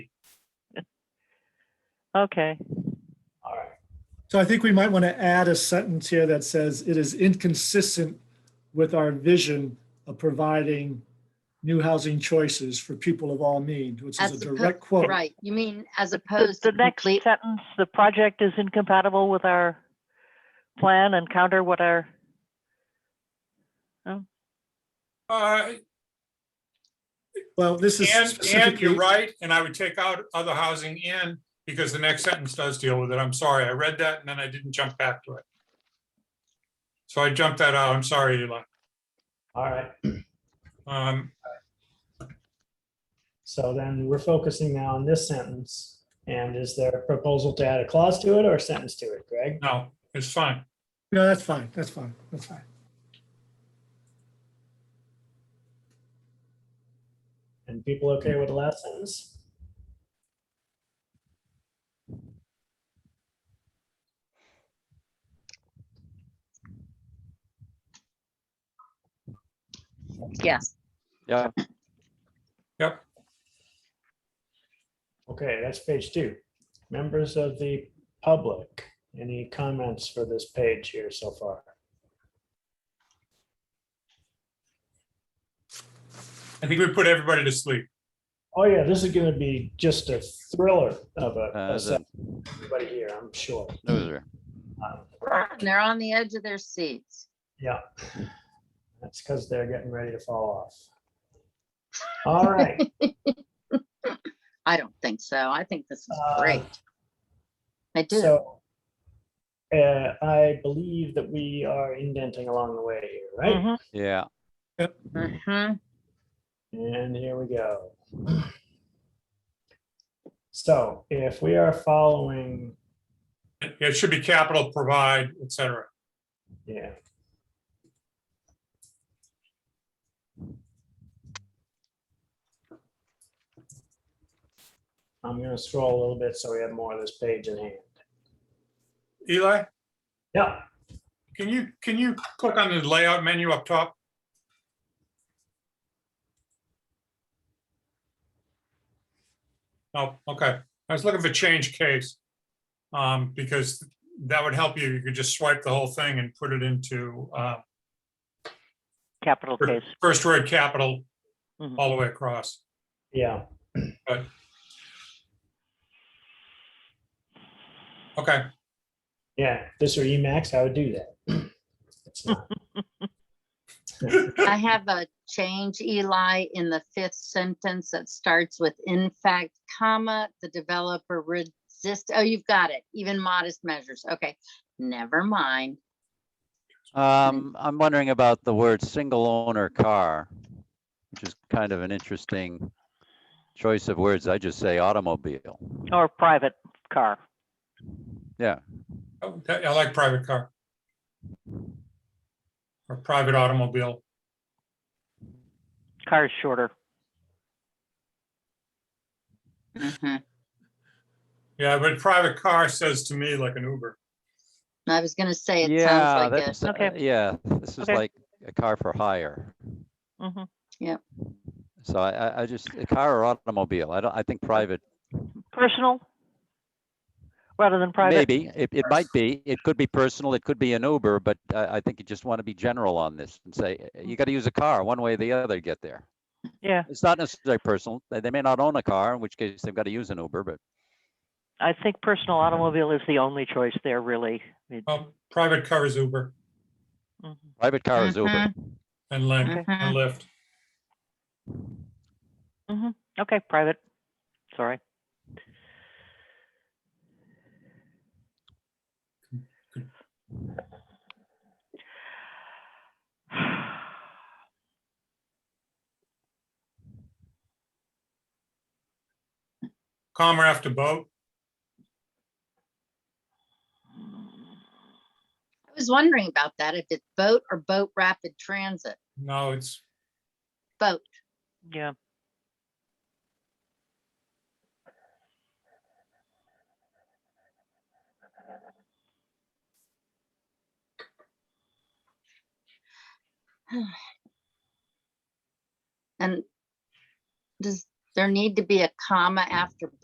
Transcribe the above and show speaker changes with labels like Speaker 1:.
Speaker 1: Okay,
Speaker 2: All right.
Speaker 3: So I think we might want to add a sentence here that says it is inconsistent with our vision of providing new housing choices for people of all means, which is a
Speaker 4: As oppo-
Speaker 3: direct quote.
Speaker 4: Right, you mean as
Speaker 1: the,
Speaker 4: opposed
Speaker 1: the
Speaker 4: to
Speaker 1: next
Speaker 4: complete,
Speaker 1: sentence, the project is incompatible with our plan and counter what our,
Speaker 2: Uh,
Speaker 3: Well, this is
Speaker 2: and, and you're
Speaker 3: specifically,
Speaker 2: right, and I would take out other housing in, because the next sentence does deal with it. I'm sorry, I read that and then I didn't jump back to it. So I jumped that out. I'm sorry, Eli.
Speaker 5: All right,
Speaker 2: Um,
Speaker 5: so then we're focusing now on this sentence. And is there a proposal to add a clause to it or a sentence to it, Greg?
Speaker 2: no, it's fine.
Speaker 3: no, that's fine, that's fine, that's fine.
Speaker 5: And people okay with the last sentence?
Speaker 4: yes,
Speaker 6: Yeah,
Speaker 5: Okay, that's page two. Members of the public, any comments for this page here so far?
Speaker 2: I think we put everybody to sleep.
Speaker 5: Oh yeah, this is gonna be just a thriller of a-
Speaker 6: uh,
Speaker 5: a,
Speaker 6: the
Speaker 5: sentence, everybody here, I'm sure.
Speaker 6: loser.
Speaker 5: Um,
Speaker 4: And they're on the edge of their seats.
Speaker 5: Yeah. That's because they're getting ready to fall off. All right.
Speaker 4: I don't think so. I think this is
Speaker 5: Uh,
Speaker 4: great. I do.
Speaker 5: So uh, I believe that we are indenting along the way here, right?
Speaker 1: Mhm.
Speaker 6: Yeah,
Speaker 4: Mhm.
Speaker 5: And here we go. So if we are following,
Speaker 2: It it should be capital provide, et cetera.
Speaker 5: yeah. I'm going to scroll a little bit so we have more of this page in hand.
Speaker 2: Eli,
Speaker 5: Yeah,
Speaker 2: can you, can you click on the layout menu up top? Oh, okay. I was looking for change case. Um, because that would help you. You could just swipe the whole thing and put it into, uh,
Speaker 1: capital case.
Speaker 2: first word capital
Speaker 1: Mhm.
Speaker 2: all the way across.
Speaker 5: yeah.
Speaker 2: Okay,
Speaker 5: Yeah, if this were Emacs, I would do that. It's not.
Speaker 4: I have a change, Eli, in the fifth sentence that starts with in fact, comma, the developer resist, oh, you've got it, even modest measures. Okay, never mind.
Speaker 6: um, I'm wondering about the word single owner car, which is kind of an interesting choice of words. I just say automobile.
Speaker 1: Or private car.
Speaker 2: Oh, I I like private car. Or private automobile.
Speaker 1: Car's shorter.
Speaker 4: Mhm.
Speaker 2: Yeah, but private car says to me like an Uber.
Speaker 4: I was gonna say, it
Speaker 6: Yeah,
Speaker 4: sounds like a
Speaker 6: that's, uh,
Speaker 1: Okay.
Speaker 6: yeah, this is
Speaker 1: Okay.
Speaker 6: like a car for hire.
Speaker 1: Mhm.
Speaker 6: So I, I, I just, a car or automobile, I don't, I think private,
Speaker 1: Personal? Rather than private?
Speaker 6: maybe, it, it might be, it could be personal, it could be an Uber, but uh, I, I think you just want to be general on this and say, "Uh, you got to use a car, one way or the other to get there.
Speaker 1: Yeah,
Speaker 6: It's not necessarily personal, they, they may not own a car, in which case they've got to use an Uber, but
Speaker 1: I think personal automobile is the only choice there, really. It-
Speaker 2: Well, private car is Uber
Speaker 1: mhm.
Speaker 6: private car is Uber.
Speaker 2: and
Speaker 4: Mhm.
Speaker 2: Lyft, and Lyft.
Speaker 1: Okay, private. Sorry.
Speaker 2: Comma after boat.
Speaker 4: I was wondering about that, if it's boat or boat rapid transit,
Speaker 2: No, it's,
Speaker 4: boat.
Speaker 1: Yeah,
Speaker 4: And does there need to be a comma after